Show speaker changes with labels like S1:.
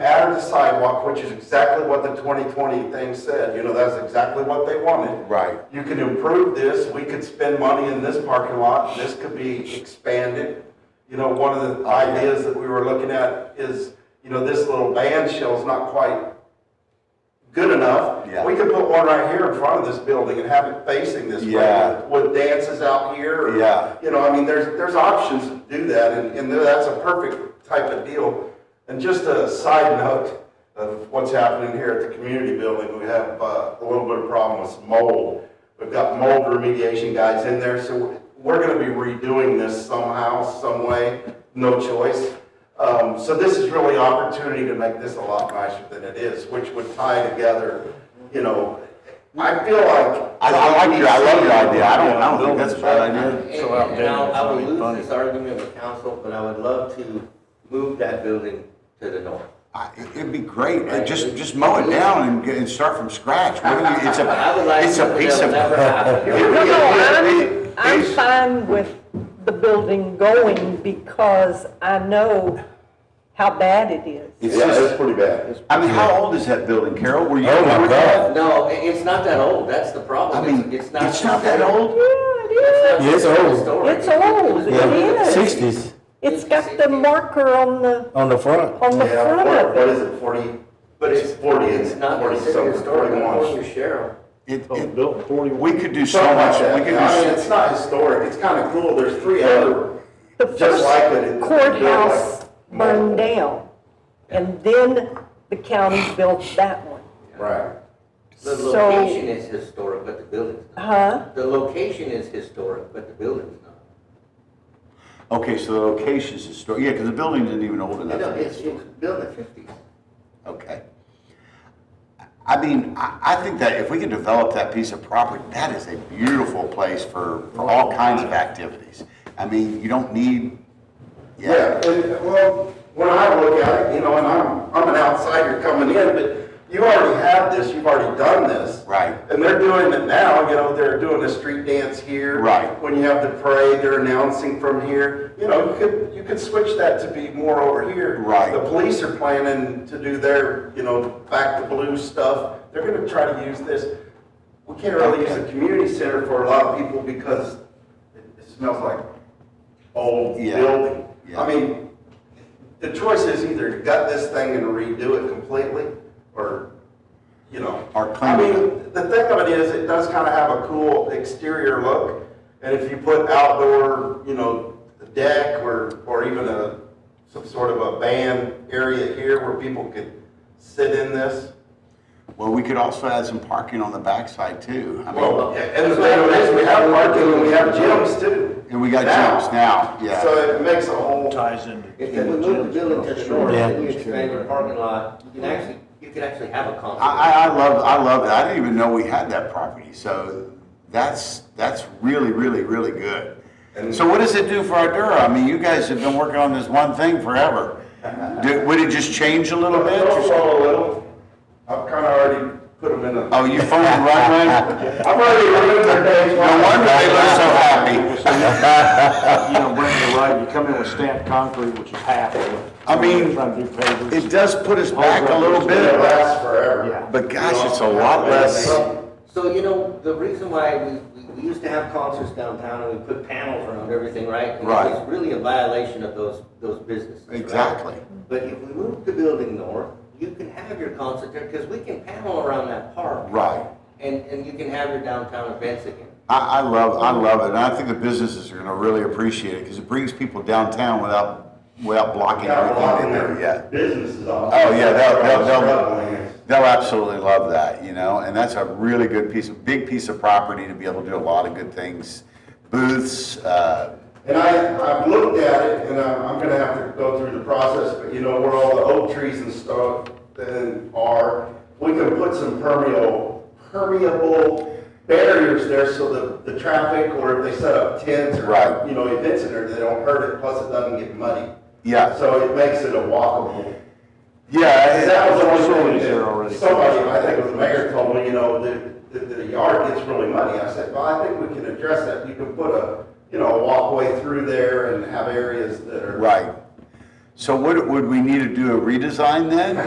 S1: added the sidewalk, which is exactly what the 2020 thing said, you know, that's exactly what they wanted.
S2: Right.
S1: You can improve this, we could spend money in this parking lot, this could be expanded. You know, one of the ideas that we were looking at is, you know, this little band shell's not quite good enough.
S2: Yeah.
S1: We could put one right here in front of this building and have it facing this
S2: Yeah.
S1: way, with dances out here. or-
S2: Yeah.
S1: You know, I mean, there's, there's options to do that, and, and that's a perfect type of deal. And just a side note of what's happening here at the community building, we have uh, a little bit of problem with some mold. We've got mold remediation guys in there, so we're gonna be redoing this somehow, some way, no choice. Um, so this is really opportunity to make this a lot nicer than it is, which would tie together, you know, I feel like.
S2: I, I like your, I love your idea. I don't, I don't think that's a bad idea.
S3: And
S4: So out
S3: and
S4: there,
S3: I'll- I
S4: it's
S3: will
S4: really
S3: lose this argument with council, but I would love to move that building to the north.
S2: I- It'd be great. Uh, Just, just mow it down and, get- and start from scratch. What do you- It's
S3: I would
S2: a,
S3: like
S2: it's a
S3: something
S2: piece
S3: that'll
S2: of.
S3: never happen.
S4: No, no, I'm,
S2: It-
S4: I'm
S2: it's-
S4: fine with the building going because I know how bad it is.
S2: It's just,
S1: pretty bad.
S2: I mean, how old is that building, Carol? Were you?
S5: Oh, my God.
S3: No, i- it's not that old, that's the
S2: I
S3: problem.
S2: mean, it's not that
S4: Yeah,
S2: old.
S4: it is.
S5: It's old.
S3: Story.
S4: It's old,
S5: Yeah,
S4: it is.
S5: sixties
S4: It's got the marker on the,
S5: on the front.
S4: on the
S1: Yeah,
S4: front
S1: what-
S4: of
S1: what
S4: it.
S1: is it, forty?
S3: But it's,
S1: Forty,
S3: it's not
S1: forty
S3: considered
S1: something,
S3: historic, according to
S1: forty-one.
S3: Cheryl.
S2: It, it,
S5: Built
S2: we could do so much. We could
S1: I mean,
S2: do,
S1: it's not historic, it's kind of cool, there's three other,
S4: The
S1: just like it.
S4: first
S1: it's
S4: courthouse
S1: built like-
S4: burned down and then the county built that one.
S1: Right.
S3: The
S4: So-
S3: location is historic, but the building's not.
S4: Huh?
S3: The location is historic, but the building's not.
S2: okay, so the location's historic. Yeah, because the building isn't even old enough.
S3: No,
S2: to be
S3: it's, it was built in the fifties.
S2: Okay. I mean, I, I think that if we can develop that piece of property, that is a beautiful place for, for all kinds of activities. I mean, you don't need,
S1: Yeah,
S2: yeah,
S1: and, well, when I look at it, you know, and I'm, I'm an outsider coming in, but you already have this, you've already done this.
S2: Right.
S1: And they're doing it now, you know, they're doing a street dance here.
S2: Right.
S1: When you have the parade, they're announcing from here, you know, you could, you could switch that to be more over here.
S2: Right.
S1: The police are planning to do their, you know, back to blue stuff, they're gonna try to use this. We can't really use the community center for a lot of people because it it smells like old
S2: Yeah.
S1: building.
S2: Yeah.
S1: I mean, the choice is either you gut this thing and redo it completely, or, you know.
S2: Or
S1: I
S2: clean it.
S1: mean, the thing of it is, it does kind of have a cool exterior look, and if you put outdoor, you know, deck or, or even a, some sort of a band area here where people could sit in this.
S2: well, we could also add some parking on the backside too. I mean,
S1: Well, and the thing of it is, we have parking and we have gyms too.
S2: and we got jumps now, yeah.
S1: So it makes a whole.
S5: Ties into.
S3: If you would move the building to the north,
S5: Yeah.
S3: then you expand your parking lot, you can actually, you could actually have a concert.
S2: I, I, I love, I love that. I didn't even know we had that property, so that's, that's really, really, really good.
S1: And-
S2: So what does it do for our Dura? I mean, you guys have been working on this one thing forever. Do- Would it just change a little bit? or something?
S1: Well, a little. I've kind of already put them in a.
S2: Oh, you phoned the right way?
S1: I've already removed their names.
S2: No wonder they look so happy.
S5: You know, Brenda, you're right, you come in with stamped concrete, which is half of it.
S2: I mean,
S5: Trying to
S2: It
S5: do pavers.
S2: does put us back a little
S1: It
S2: bit,
S1: lasts forever.
S5: Yeah.
S2: but gosh, it's a lot less.
S3: So, so, you know, the reason why we, we- we used to have concerts downtown and we put panels around everything, right?
S2: Right.
S3: It's really a violation of those, those businesses. right?
S2: Exactly.
S3: But if we move the building north, you can have your concert there, because we can panel around that park.
S2: Right.
S3: And, and you can have your downtown events again.
S2: I, I love, I love it, and I think the businesses are gonna really appreciate it, because it brings people downtown without, without blocking
S1: Got a lot
S2: everything
S1: in
S2: in there, yeah.
S1: Businesses off.
S2: Oh, yeah, they'll, they'll,
S1: Struggling
S2: they'll,
S1: is-
S2: they'll absolutely love that, you know, and that's a really good piece, of big piece of property to be able to do a lot of good things. Booths, uh,
S1: And I, I've looked at it, and I'm, I'm gonna have to go through the process, but you know, where all the oak trees and stuff then are, we can put some permeable, permeable barriers there so that the traffic, or if they set up tents
S2: Right.
S1: or, you know, events in there, they don't hurt it, plus it doesn't get muddy.
S2: Yeah.
S1: So it makes it a walkable.
S2: yeah. it-
S1: And that was the
S5: Facilities
S1: only thing
S5: there already.
S1: that somebody, I think it was the mayor told me, you know, that, that the yard gets really muddy. I said, well, I think we can address that. You can put a, you know, a walkway through there and have areas that are.
S2: Right. So would, would we need to do a redesign then?